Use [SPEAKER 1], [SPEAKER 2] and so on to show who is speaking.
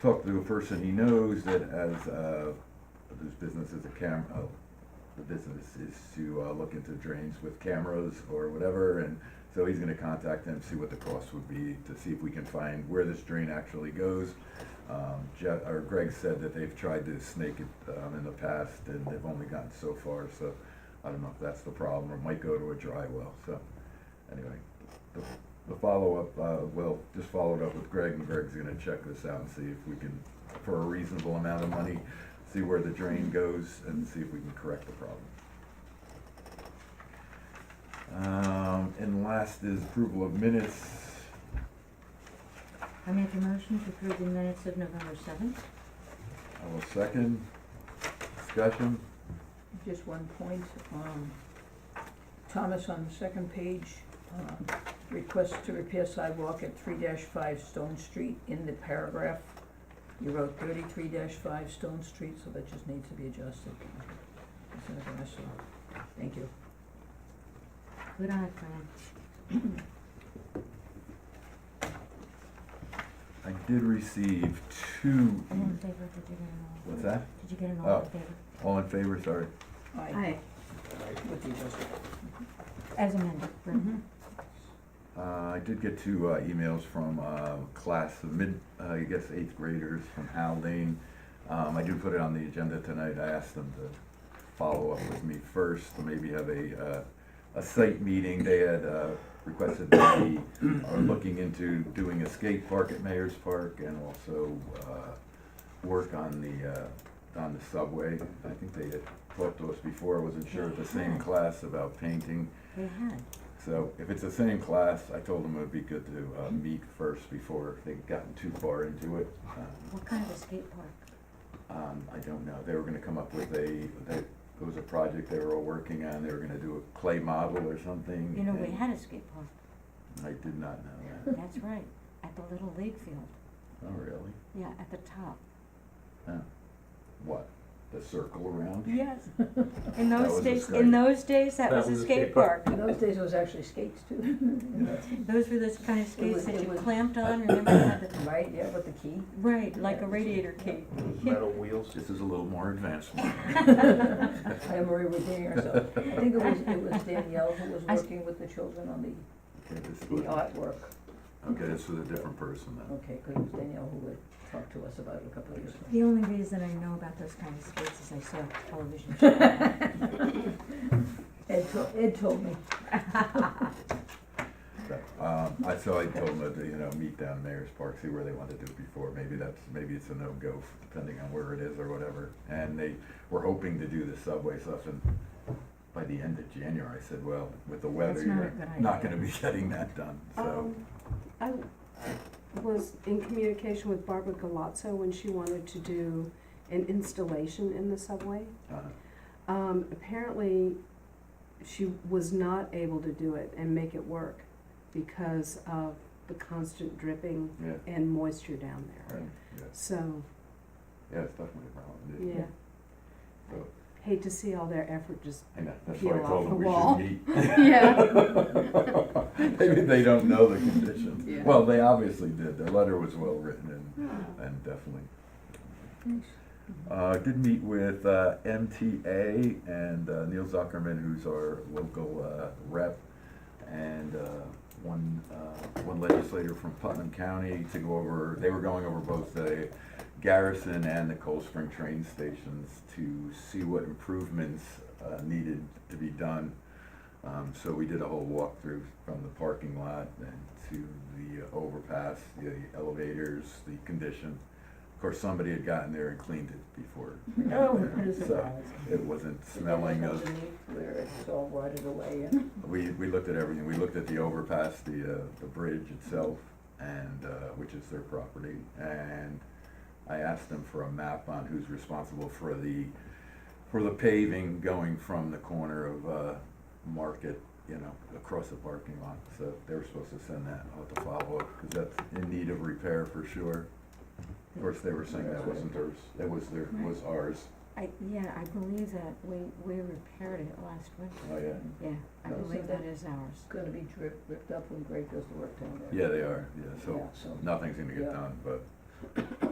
[SPEAKER 1] talked to a person he knows that has, uh, whose business is a cam, oh, the business is to, uh, look into drains with cameras or whatever, and so he's gonna contact them, see what the cost would be, to see if we can find where this drain actually goes. Um, Je- or Greg said that they've tried to snake it, um, in the past, and they've only gotten so far, so I don't know if that's the problem, or it might go to a dry well, so, anyway. The the follow-up, uh, well, just followed up with Greg, and Greg's gonna check this out and see if we can, for a reasonable amount of money, see where the drain goes and see if we can correct the problem. Um, and last is approval of minutes.
[SPEAKER 2] I make a motion to approve the minutes of November seventh.
[SPEAKER 1] I will second. Discussion?
[SPEAKER 3] Just one point, um, Thomas on the second page, um, request to repair sidewalk at three five Stone Street in the paragraph. You wrote thirty-three five Stone Street, so that just needs to be adjusted. That's another issue. Thank you.
[SPEAKER 2] Good eye, Fran.
[SPEAKER 1] I did receive two, e-,
[SPEAKER 2] All in favor, did you get an all?
[SPEAKER 1] what's that?
[SPEAKER 2] Did you get an all
[SPEAKER 1] Oh.
[SPEAKER 2] in favor?
[SPEAKER 1] All in favor, sorry.
[SPEAKER 3] Aye, with the adjustment.
[SPEAKER 2] As amended, right.
[SPEAKER 3] Mhm.
[SPEAKER 1] Uh, I did get two uh, emails from uh, class of mid, uh, I guess eighth graders from Haldane. Um, I do put it on the agenda tonight. I asked them to follow up with me first, to maybe have a, uh, a site meeting. They had uh, requested that we are looking into doing a skate park at Mayor's Park and also uh, work on the, uh, on the subway. I think they had talked to us before. I wasn't sure, the same class about painting.
[SPEAKER 2] they had.
[SPEAKER 1] So if it's the same class, I told them it would be good to uh, meet first before they'd gotten too far into it. Um,
[SPEAKER 2] What kind of a skate park?
[SPEAKER 1] um, I don't know, they were gonna come up with a, they- it was a project they were all working on, they were gonna do a clay model or something.
[SPEAKER 2] You know, we
[SPEAKER 1] and
[SPEAKER 2] had a skate park,
[SPEAKER 1] I did not know that.
[SPEAKER 2] that's right, at the Little League Field,
[SPEAKER 1] Oh, really?
[SPEAKER 2] yeah, at the top.
[SPEAKER 1] What, the circle around?
[SPEAKER 2] Yes. In
[SPEAKER 1] That
[SPEAKER 2] those
[SPEAKER 1] was a
[SPEAKER 2] days,
[SPEAKER 1] skate-
[SPEAKER 2] in those days, that was a skate park.
[SPEAKER 3] In those days, it was actually skates too.
[SPEAKER 1] Yeah.
[SPEAKER 2] Those were those kind of
[SPEAKER 3] was-
[SPEAKER 2] skates that
[SPEAKER 3] it
[SPEAKER 2] you
[SPEAKER 3] was-
[SPEAKER 2] clamped on, remember, you had the,
[SPEAKER 3] Right, yeah, with the key.
[SPEAKER 2] right, like
[SPEAKER 3] Yeah,
[SPEAKER 2] a
[SPEAKER 3] it was-
[SPEAKER 2] radiator cape.
[SPEAKER 4] metal wheels.
[SPEAKER 1] This is a little more advanced one.
[SPEAKER 3] I am already repeating ourselves. I think it was, it was Danielle who was
[SPEAKER 2] I s-
[SPEAKER 3] working with the children on the,
[SPEAKER 1] Okay, this
[SPEAKER 3] the
[SPEAKER 1] was,
[SPEAKER 3] artwork.
[SPEAKER 1] okay, this was a different person then.
[SPEAKER 3] Okay, good, it was Danielle who would talk to us about it a couple of years ago.
[SPEAKER 2] The only reason I know about those kind of skates is I saw a television show.
[SPEAKER 3] Ed told, Ed told me.
[SPEAKER 1] So, Um, I, so I told them to, you know, meet down Mayor's Park, see where they want to do it before, maybe that's, maybe it's a no-go, depending on where it is or whatever. And they were hoping to do the subway stuff and by the end of January, I said, well, with the weather,
[SPEAKER 2] That's not a
[SPEAKER 1] you're
[SPEAKER 2] good
[SPEAKER 1] not
[SPEAKER 2] idea.
[SPEAKER 1] gonna be getting that done, so.
[SPEAKER 5] Um, I was in communication with Barbara Galazzo when she wanted to do an installation in the subway.
[SPEAKER 1] uh,
[SPEAKER 5] Um, apparently, she was not able to do it and make it work because of the constant dripping
[SPEAKER 1] Yeah,
[SPEAKER 5] and moisture down there.
[SPEAKER 1] right, yeah,
[SPEAKER 5] So,
[SPEAKER 1] yeah, it's definitely a problem.
[SPEAKER 5] yeah.
[SPEAKER 1] So-
[SPEAKER 5] Hate to see all their effort just,
[SPEAKER 1] I know, that's why I
[SPEAKER 5] Peel off
[SPEAKER 1] told
[SPEAKER 5] the
[SPEAKER 1] them we
[SPEAKER 5] wall.
[SPEAKER 1] should meet.
[SPEAKER 5] yeah,
[SPEAKER 1] Maybe they don't know the conditions.
[SPEAKER 5] Yeah.
[SPEAKER 1] Well, they obviously did, their letter was well-written and, and definitely Uh, did meet with uh, MTA and uh, Neil Zuckerman, who's our local uh, rep, and uh, one uh, one legislator from Putnam County to go over. They were going over both the Garrison and the Cold Spring train stations to see what improvements uh, needed to be done. Um, so we did a whole walkthrough from the parking lot and to the overpass, the elevators, the condition. Of course, somebody had gotten there and cleaned it before. we got
[SPEAKER 3] Oh,
[SPEAKER 1] there, So it wasn't smelling of,
[SPEAKER 3] Where it's all rotted away and
[SPEAKER 1] we, we looked at everything. We looked at the overpass, the, uh, the bridge itself and, uh, which is their property. And I asked them for a map on who's responsible for the, for the paving going from the corner of, uh, Market, you know, across the parking lot. So they were supposed to send that, I'll have to follow up, cause that's in need of repair for sure. Of course, they were saying that wasn't theirs, that was their, was ours.
[SPEAKER 2] I, yeah, I believe that, we, we repaired it last winter,
[SPEAKER 1] Oh, yeah.
[SPEAKER 2] yeah, I
[SPEAKER 1] No.
[SPEAKER 2] believe that is ours.
[SPEAKER 3] it's gonna be drip, ripped up when Greg does the work down there.
[SPEAKER 1] Yeah, they are, yeah, so
[SPEAKER 3] Yeah, so,
[SPEAKER 1] nothing's gonna get
[SPEAKER 3] Yeah.
[SPEAKER 1] done, but